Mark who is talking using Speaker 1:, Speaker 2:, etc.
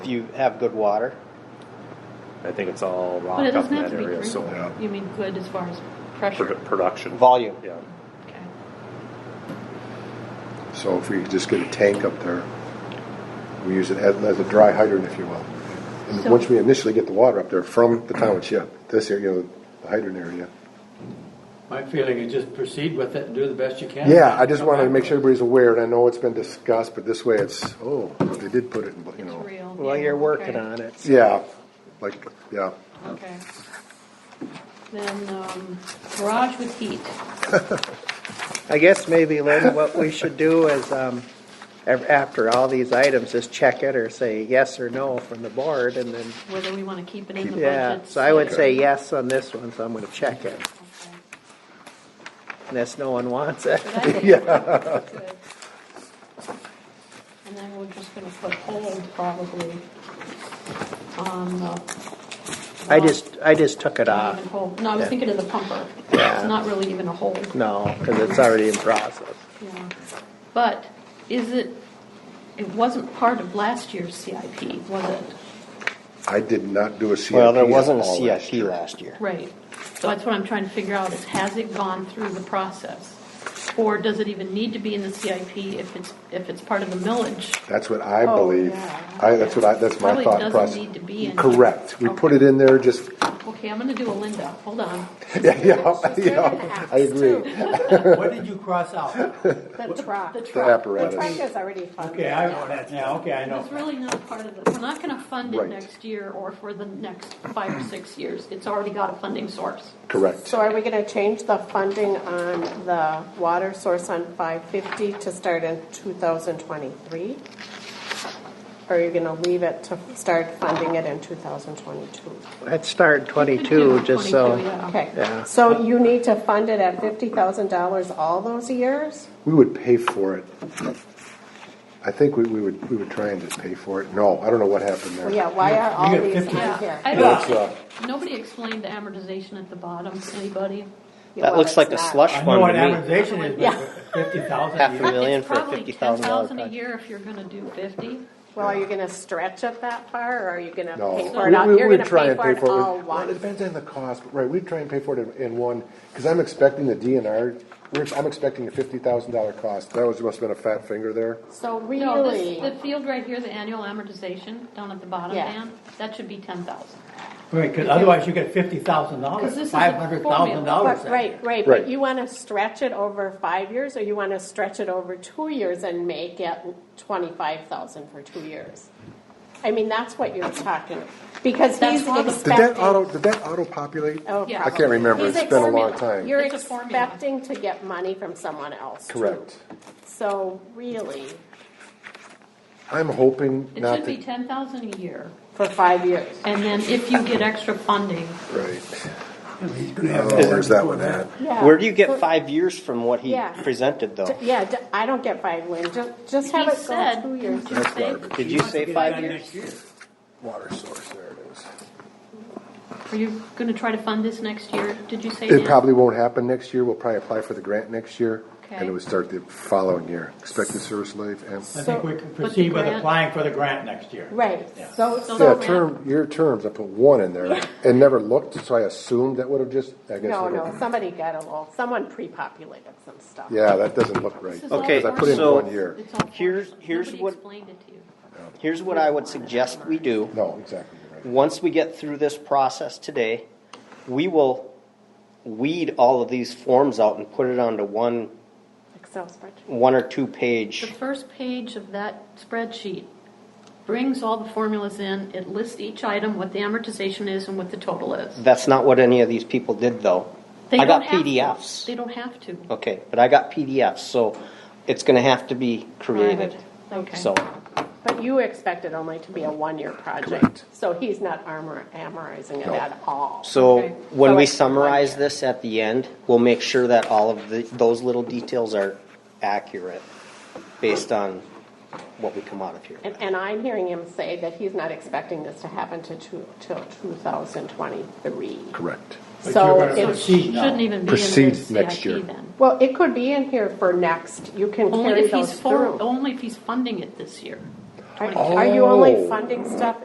Speaker 1: If you have good water,
Speaker 2: I think it's all rock
Speaker 3: But it
Speaker 2: up
Speaker 3: doesn't
Speaker 2: in
Speaker 3: have
Speaker 2: that
Speaker 3: to be
Speaker 2: area, so
Speaker 3: green. You mean good as far as pressure?
Speaker 2: produ- production.
Speaker 1: volume.
Speaker 2: Yeah,
Speaker 3: Okay.
Speaker 4: So if we could just get a tank up there, we use it as, as a dry hydrant, if you will. And
Speaker 3: So-
Speaker 4: once we initially get the water up there from the township, this area, the hydrant area.
Speaker 5: My feeling is just proceed with it and do the best you can.
Speaker 4: Yeah, I just wanted to make sure everybody's aware, and I know it's been discussed, but this way it's, oh, they did put it in, you
Speaker 3: It's
Speaker 4: know.
Speaker 3: real.
Speaker 1: Well,
Speaker 3: yeah,
Speaker 1: you're working
Speaker 3: okay,
Speaker 1: on it.
Speaker 4: Yeah, like, yeah.
Speaker 3: Okay. Then, um, garage with heat.
Speaker 1: I guess maybe, Lynn, what we should do is, um, af- after all these items, is check it or say yes or no from the board and then,
Speaker 3: whether we want to keep it in the budget.
Speaker 1: yeah. So I would say yes on this one, so I'm gonna check it.
Speaker 3: Okay.
Speaker 1: Unless no one wants it.
Speaker 3: But I think that's good. And then we're just gonna put hold probably on the.
Speaker 1: I just, I just took it
Speaker 3: Not
Speaker 1: off.
Speaker 3: even hold. No, I was
Speaker 1: Yeah.
Speaker 3: thinking of the pumper. It's not really even a hold.
Speaker 1: No, because it's already in process.
Speaker 3: Yeah, but is it, it wasn't part of last year's CIP, was it?
Speaker 4: I did not do a CIP.
Speaker 1: Well, there
Speaker 4: at
Speaker 1: wasn't a
Speaker 4: all last
Speaker 1: CIP
Speaker 4: year.
Speaker 1: last year.
Speaker 3: Right, so that's what I'm trying to figure out, is has it gone through the process? Or does it even need to be in the CIP if it's, if it's part of the millage?
Speaker 4: That's what I
Speaker 3: Oh,
Speaker 4: believe.
Speaker 3: yeah.
Speaker 4: I, that's what I, that's my
Speaker 3: Probably
Speaker 4: thought
Speaker 3: doesn't
Speaker 4: process.
Speaker 3: need to be in here.
Speaker 4: Correct. We put it
Speaker 3: Okay.
Speaker 4: in there just,
Speaker 3: Okay, I'm gonna do a Linda, hold on.
Speaker 4: yeah, yeah, yeah, I agree.
Speaker 5: What did you cross out?
Speaker 6: The truck. The
Speaker 4: The apparatus.
Speaker 6: truck is already funded.
Speaker 5: Okay, I know that now, okay, I know.
Speaker 3: It's really not part of the, we're not gonna fund it
Speaker 4: Right.
Speaker 3: next year or for the next five or six years. It's already got a funding source.
Speaker 4: Correct.
Speaker 6: So are we gonna change the funding on the water source on five fifty to start in two thousand twenty-three? Or are you gonna leave it to start funding it in two thousand twenty-two?
Speaker 1: Let's start
Speaker 3: Could do
Speaker 1: twenty-two, just so.
Speaker 3: 22, yeah.
Speaker 1: Yeah.
Speaker 6: Okay, so you need to fund it at fifty thousand dollars all those years?
Speaker 4: We would pay for it. I think we, we would, we would try and just pay for it. No, I don't know what happened
Speaker 6: Well,
Speaker 4: there.
Speaker 6: yeah, why are all
Speaker 5: You get
Speaker 6: these
Speaker 5: 50.
Speaker 6: on
Speaker 3: Yeah,
Speaker 6: here?
Speaker 3: I
Speaker 4: That's, uh,
Speaker 3: don't, nobody explained the amortization at the bottom, anybody?
Speaker 6: Yeah,
Speaker 1: That
Speaker 6: well,
Speaker 1: looks
Speaker 6: it's
Speaker 1: like a
Speaker 6: not.
Speaker 1: slush
Speaker 5: I know
Speaker 1: fund
Speaker 5: what
Speaker 1: to me.
Speaker 5: amortization is,
Speaker 6: Yeah.
Speaker 5: but fifty
Speaker 1: Half
Speaker 5: thousand
Speaker 1: a million.
Speaker 5: years.
Speaker 1: for a $50,000
Speaker 3: It's probably ten thousand a
Speaker 1: project.
Speaker 3: year if you're gonna do fifty.
Speaker 6: Well, are you gonna stretch it that far, or are you gonna
Speaker 4: No.
Speaker 6: pay
Speaker 4: We-
Speaker 6: for it all,
Speaker 4: we-
Speaker 6: you're
Speaker 4: we'd
Speaker 6: gonna
Speaker 4: try
Speaker 6: pay
Speaker 4: and
Speaker 6: for it all
Speaker 4: Well, it
Speaker 6: once?
Speaker 4: depends on the cost, but right, we'd try and pay for it in, in one, because I'm expecting the DNR, we're, I'm expecting a fifty thousand dollar cost. That was, must have been a fat finger there.
Speaker 6: So
Speaker 3: No, this,
Speaker 6: really,
Speaker 3: the field right here, the annual amortization down at the bottom,
Speaker 6: Yeah.
Speaker 3: Dan, that should be ten thousand.
Speaker 5: Right, cause otherwise you get fifty thousand
Speaker 3: Because this is
Speaker 5: dollars,
Speaker 3: a
Speaker 5: five hundred thousand
Speaker 3: formula.
Speaker 5: dollars.
Speaker 6: but, right, right,
Speaker 4: Right.
Speaker 6: but you wanna stretch it over five years, or you wanna stretch it over two years and make it twenty-five thousand for two years? I mean, that's what you're talking, because
Speaker 3: That's
Speaker 6: he's
Speaker 3: one of the-
Speaker 4: Did that auto,
Speaker 6: expecting.
Speaker 4: did that auto populate?
Speaker 6: Oh,
Speaker 3: Yeah.
Speaker 4: I can't remember.
Speaker 6: He's
Speaker 4: It's been a
Speaker 6: expecting-
Speaker 4: long time.
Speaker 6: You're
Speaker 3: It's a formula.
Speaker 6: expecting to get money from someone else. too.
Speaker 4: Correct.
Speaker 6: So really,
Speaker 4: I'm hoping
Speaker 3: It
Speaker 4: not
Speaker 3: should be
Speaker 4: to.
Speaker 3: ten thousand a year,
Speaker 6: for five years.
Speaker 3: and then if you get extra funding,
Speaker 4: Right.
Speaker 5: gonna
Speaker 4: Oh, where's that one at?
Speaker 6: Yeah.
Speaker 1: Where do you
Speaker 6: For-
Speaker 1: get five years from what he
Speaker 6: Yeah.
Speaker 1: presented, though?
Speaker 6: Yeah, d- I don't get five, Lynn, just, just have
Speaker 3: he
Speaker 6: it go
Speaker 3: said,
Speaker 6: two
Speaker 3: didn't
Speaker 6: years.
Speaker 3: you
Speaker 4: That's
Speaker 3: say,
Speaker 4: garbage.
Speaker 1: Did you say five years?
Speaker 4: Water source, there it is.
Speaker 3: are you gonna try to fund this next year, did you say?
Speaker 4: It
Speaker 3: Dan?
Speaker 4: probably won't happen next year. We'll probably apply for the grant next year. And
Speaker 3: Okay.
Speaker 4: it would start the following year. Expected service life and,
Speaker 5: I
Speaker 6: So-
Speaker 5: think we can proceed with
Speaker 3: grant-
Speaker 5: applying for the grant next year.
Speaker 6: Right, so,
Speaker 3: So
Speaker 4: yeah,
Speaker 3: the grant-
Speaker 4: term, year terms, I put one in there and never looked, so I assumed that would have just, I guess.
Speaker 6: no,
Speaker 4: it
Speaker 6: no,
Speaker 4: would've-
Speaker 6: somebody got a little, someone pre-populated some stuff.
Speaker 4: Yeah, that doesn't look right.
Speaker 3: This is all
Speaker 4: Because I put in
Speaker 3: formula.
Speaker 4: one year.
Speaker 3: It's all
Speaker 1: Here's-
Speaker 3: formula.
Speaker 1: here's
Speaker 3: Nobody
Speaker 1: what-
Speaker 3: explained it to you.
Speaker 1: Here's what I would suggest we do.
Speaker 4: No, exactly, you're right.
Speaker 1: Once we get through this process today, we will weed all of these forms out and put it onto one,
Speaker 6: Excel spreadsheet.
Speaker 1: one or two
Speaker 3: The
Speaker 1: page.
Speaker 3: first page of that spreadsheet brings all the formulas in, it lists each item, what the amortization is and what the total is.
Speaker 1: That's not what any of these people did, though.
Speaker 3: They
Speaker 1: I got
Speaker 3: don't have to.
Speaker 1: PDFs.
Speaker 3: They don't have to.
Speaker 1: Okay, but I got PDFs, so it's gonna have to be created.
Speaker 3: Right, okay.
Speaker 1: So,
Speaker 6: But you expect it only to be a one-year project,
Speaker 4: Correct.
Speaker 6: so he's not armor, amorizing it
Speaker 4: No.
Speaker 6: at all.
Speaker 1: so
Speaker 3: Okay.
Speaker 1: when
Speaker 6: So
Speaker 1: we
Speaker 6: it's one
Speaker 1: summarize
Speaker 6: year.
Speaker 1: this at the end, we'll make sure that all of the, those little details are accurate based on what we come out of here.
Speaker 6: And, and I'm hearing him say that he's not expecting this to happen to two, till two thousand twenty-three.
Speaker 4: Correct.
Speaker 5: But
Speaker 6: So
Speaker 5: you're gonna
Speaker 6: it
Speaker 3: So it
Speaker 5: proceed now.
Speaker 3: shouldn't even be in
Speaker 4: Proceed
Speaker 3: the
Speaker 4: next year.
Speaker 3: CIP then.
Speaker 6: Well, it could be in here for next, you can
Speaker 3: Only
Speaker 6: carry
Speaker 3: if he's
Speaker 6: those
Speaker 3: for,
Speaker 6: through.
Speaker 3: only if he's funding it this year.
Speaker 4: Oh.
Speaker 6: Are are you only funding stuff